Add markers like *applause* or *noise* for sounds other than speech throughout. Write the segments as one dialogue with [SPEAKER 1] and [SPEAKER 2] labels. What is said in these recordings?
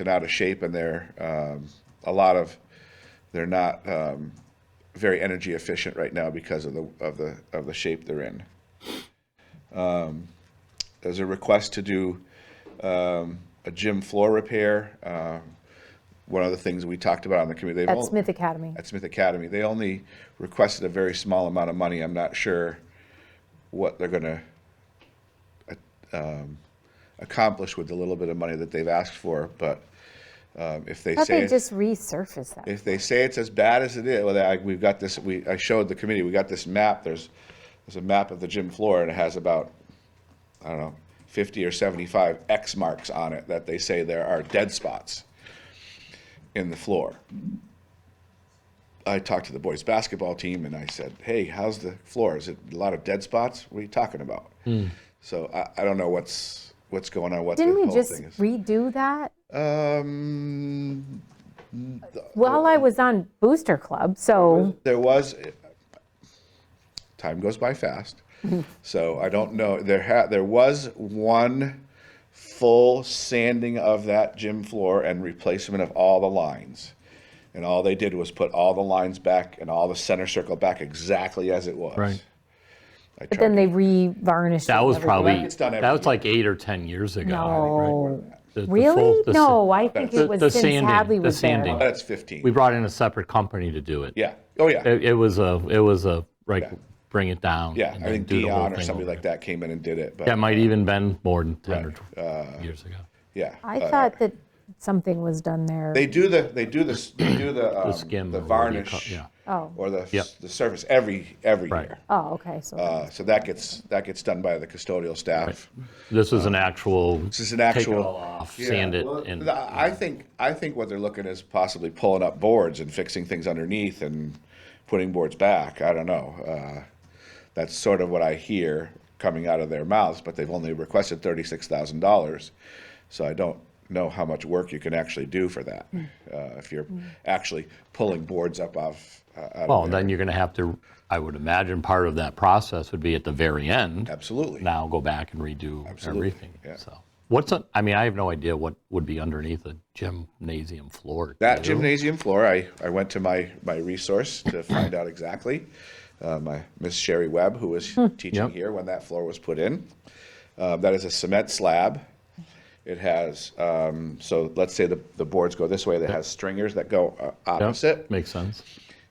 [SPEAKER 1] and out of shape and they're, um, a lot of, they're not, um, very energy efficient right now because of the, of the, of the shape they're in. Um, There's a request to do, um, a gym floor repair. Um, One of the things we talked about on the committee. they've
[SPEAKER 2] At
[SPEAKER 1] only-
[SPEAKER 2] Smith Academy.
[SPEAKER 1] at Smith Academy. They only requested a very small amount of money. I'm not sure what they're going to accomplish with the little bit of money that they've asked for. But um, if they
[SPEAKER 2] How
[SPEAKER 1] say
[SPEAKER 2] they just resurface that?
[SPEAKER 1] if they say it's as bad as it is, well, I, we've got this. We I showed the committee. We got this map. There's there's a map of the gym floor, and it has about I don't know 50 or 75 X marks on it that they say there are dead spots in the floor. I talked to the boys basketball team and I said, "Hey, how's the floor? Is it a lot of dead spots? What are you talking about?" So I, I don't know what's what's going on. What
[SPEAKER 2] Didn't
[SPEAKER 1] the
[SPEAKER 2] we
[SPEAKER 1] whole
[SPEAKER 2] just
[SPEAKER 1] thing is.
[SPEAKER 2] redo that?
[SPEAKER 1] um,
[SPEAKER 2] Well, I was on Booster Club, so
[SPEAKER 1] There was, time goes by
[SPEAKER 2] *laughs*
[SPEAKER 1] fast, so I don't know, there had, there was one full sanding of that gym floor and replacement of all the lines. And all they did was put all the lines back and all the center circle back exactly as it was.
[SPEAKER 3] Right.
[SPEAKER 1] I
[SPEAKER 2] but then
[SPEAKER 1] tried-
[SPEAKER 2] they re-varnished.
[SPEAKER 3] That
[SPEAKER 2] it
[SPEAKER 3] was
[SPEAKER 2] every-
[SPEAKER 3] probably,
[SPEAKER 1] It's done every
[SPEAKER 3] that was like eight or 10 years ago. right?
[SPEAKER 2] No,
[SPEAKER 3] The- the full-
[SPEAKER 2] really?
[SPEAKER 3] the sa-
[SPEAKER 2] No, I think
[SPEAKER 3] The-
[SPEAKER 2] it was
[SPEAKER 3] the
[SPEAKER 2] since
[SPEAKER 3] sanding,
[SPEAKER 2] Hadley
[SPEAKER 3] the
[SPEAKER 2] was there.
[SPEAKER 3] sanding.
[SPEAKER 1] That's fifteen.
[SPEAKER 3] We brought in a separate company to do it.
[SPEAKER 1] Yeah, oh, yeah,
[SPEAKER 3] It it was a, it was a, right, bring it down.
[SPEAKER 1] yeah,
[SPEAKER 3] and
[SPEAKER 1] I
[SPEAKER 3] then
[SPEAKER 1] think
[SPEAKER 3] do the whole
[SPEAKER 1] Dion or
[SPEAKER 3] thing
[SPEAKER 1] somebody
[SPEAKER 3] over.
[SPEAKER 1] like that came in and did it,
[SPEAKER 3] That
[SPEAKER 1] but,
[SPEAKER 3] might even been more than 10 or
[SPEAKER 1] Uh,
[SPEAKER 3] 12 years ago.
[SPEAKER 1] yeah.
[SPEAKER 2] I
[SPEAKER 1] uh,
[SPEAKER 2] thought that something was done there.
[SPEAKER 1] They do the, they do the, they do the, um,
[SPEAKER 3] skim
[SPEAKER 1] the
[SPEAKER 3] or whatever you
[SPEAKER 1] varnish.
[SPEAKER 3] call- yeah.
[SPEAKER 2] Oh,
[SPEAKER 1] or the,
[SPEAKER 3] Yep.
[SPEAKER 1] the service every, every
[SPEAKER 3] Right.
[SPEAKER 1] year.
[SPEAKER 2] oh, okay, so,
[SPEAKER 1] Uh, So that gets, that gets done by the custodial staff.
[SPEAKER 3] This is an actual. This
[SPEAKER 1] uh, is an
[SPEAKER 3] Take it
[SPEAKER 1] actual-
[SPEAKER 3] all off, sand it
[SPEAKER 1] Well,
[SPEAKER 3] and.
[SPEAKER 1] I I think, I think what they're looking is possibly pulling up boards and fixing things underneath and putting boards back. I don't know. Uh, That's sort of what I hear coming out of their mouths, but they've only requested thirty-six thousand dollars. So I don't know how much work you can actually do for that,
[SPEAKER 3] Hmm.
[SPEAKER 1] uh, if you're actually pulling boards up off. uh, out of
[SPEAKER 3] Well,
[SPEAKER 1] there.
[SPEAKER 3] then you're going to have to, I would imagine part of that process would be at the very end.
[SPEAKER 1] Absolutely.
[SPEAKER 3] Now go back and redo
[SPEAKER 1] Absolutely,
[SPEAKER 3] everything,
[SPEAKER 1] yeah.
[SPEAKER 3] so. What's, on- I mean, I have no idea what would be underneath a gymnasium floor. Do
[SPEAKER 1] That
[SPEAKER 3] you?
[SPEAKER 1] gymnasium floor, I, I went to my, my resource to find out exactly. Uh, my Miss Sherry Webb, who was teaching
[SPEAKER 3] Hmm. Yep.
[SPEAKER 1] here when that floor was put in. Uh, that is a cement slab. It has, um, so let's say the, the boards go this way, that has stringers that go uh,
[SPEAKER 3] Yep,
[SPEAKER 1] opposite.
[SPEAKER 3] Makes sense.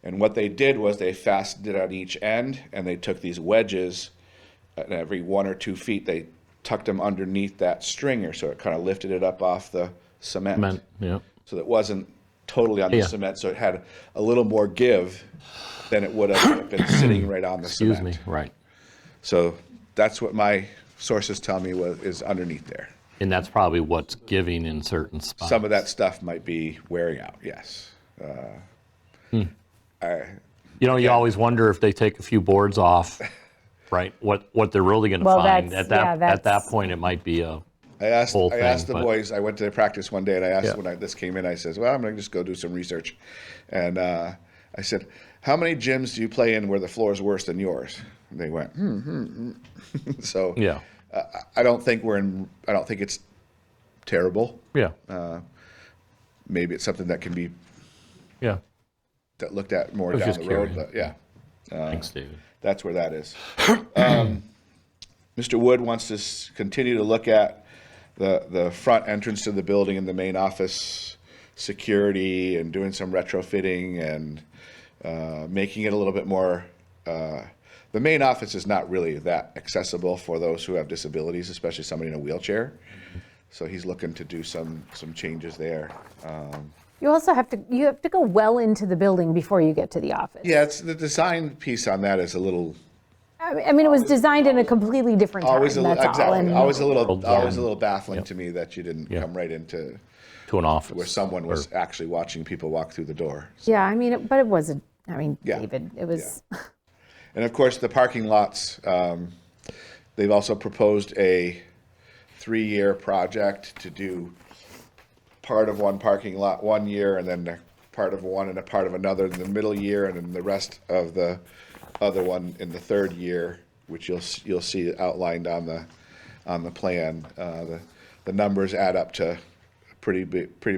[SPEAKER 1] And what they did was they fastened it on each end and they took these wedges and every one or two feet, they tucked them underneath that stringer. So it kind of lifted it up off the
[SPEAKER 3] Meant, yeah.
[SPEAKER 1] so that wasn't totally on the
[SPEAKER 3] Yeah.
[SPEAKER 1] cement, so it had a little more give than it would have been
[SPEAKER 3] *clears throat*
[SPEAKER 1] sitting right on the
[SPEAKER 3] Excuse
[SPEAKER 1] cement.
[SPEAKER 3] me, right.
[SPEAKER 1] So that's what my sources tell me was, is underneath there.
[SPEAKER 3] And that's probably what's giving in certain spots.
[SPEAKER 1] Some of that stuff might be wearing out, yes.
[SPEAKER 3] You know, you always wonder if they take a few
[SPEAKER 1] *laughs*
[SPEAKER 3] boards off, right? What, what they're really going to
[SPEAKER 2] Well,
[SPEAKER 3] find.
[SPEAKER 2] that's-
[SPEAKER 3] At
[SPEAKER 2] yeah,
[SPEAKER 3] that, at that
[SPEAKER 2] that's-
[SPEAKER 3] point, it might be a,
[SPEAKER 1] I asked,
[SPEAKER 3] Whole
[SPEAKER 1] I asked
[SPEAKER 3] thing,
[SPEAKER 1] the
[SPEAKER 3] but-
[SPEAKER 1] boys, I went to their practice one day and I asked
[SPEAKER 3] Yeah.
[SPEAKER 1] when I, this came in, I says, well, I'm gonna just go do some research. And, uh, I said, how many gyms do you play in where the floor is worse than yours? And they went, hmm, hmm, hmm. *laughs* So.
[SPEAKER 3] yeah,
[SPEAKER 1] I- I don't think we're in, I don't think it's terrible.
[SPEAKER 3] yeah,
[SPEAKER 1] Maybe it's something that can be
[SPEAKER 3] yeah.
[SPEAKER 1] that looked at more
[SPEAKER 3] was
[SPEAKER 1] down
[SPEAKER 3] just
[SPEAKER 1] the road,
[SPEAKER 3] curious.
[SPEAKER 1] but yeah, uh,
[SPEAKER 3] Thanks, David.
[SPEAKER 1] that's where that is. *coughs* um, Mr. Wood wants to s- continue to look at the, the front entrance to the building and the main office security and doing some retrofitting and uh, making it a little bit more. Uh, the main office is not really that accessible for those who have disabilities, especially somebody in a wheelchair. So he's looking to do some some changes there.
[SPEAKER 2] you also have to, you have to go well into the building before you get to the office.
[SPEAKER 1] Yeah, it's the design piece on that is a little
[SPEAKER 2] I mean- I mean, it was designed in a completely different time,
[SPEAKER 1] always
[SPEAKER 2] that's
[SPEAKER 1] a little
[SPEAKER 2] all.
[SPEAKER 1] exactly
[SPEAKER 2] and-
[SPEAKER 1] always a little
[SPEAKER 3] World
[SPEAKER 1] always a
[SPEAKER 3] design.
[SPEAKER 1] little baffling to me that you didn't
[SPEAKER 3] Yeah.
[SPEAKER 1] come right into
[SPEAKER 3] To an office.
[SPEAKER 1] where someone was actually watching people walk through the door.
[SPEAKER 2] Yeah, I mean, it- but it wasn't, I mean,
[SPEAKER 1] Yeah.
[SPEAKER 2] David, it was,
[SPEAKER 1] And of course, the parking lots. Um, they've also proposed a three-year project to do part of one parking lot one year, and then a part of one and a part of another in the middle year, and then the rest of the other one in the third year, which you'll s- you'll see outlined on the on the plan. Uh, the the numbers add up to a pretty big, pretty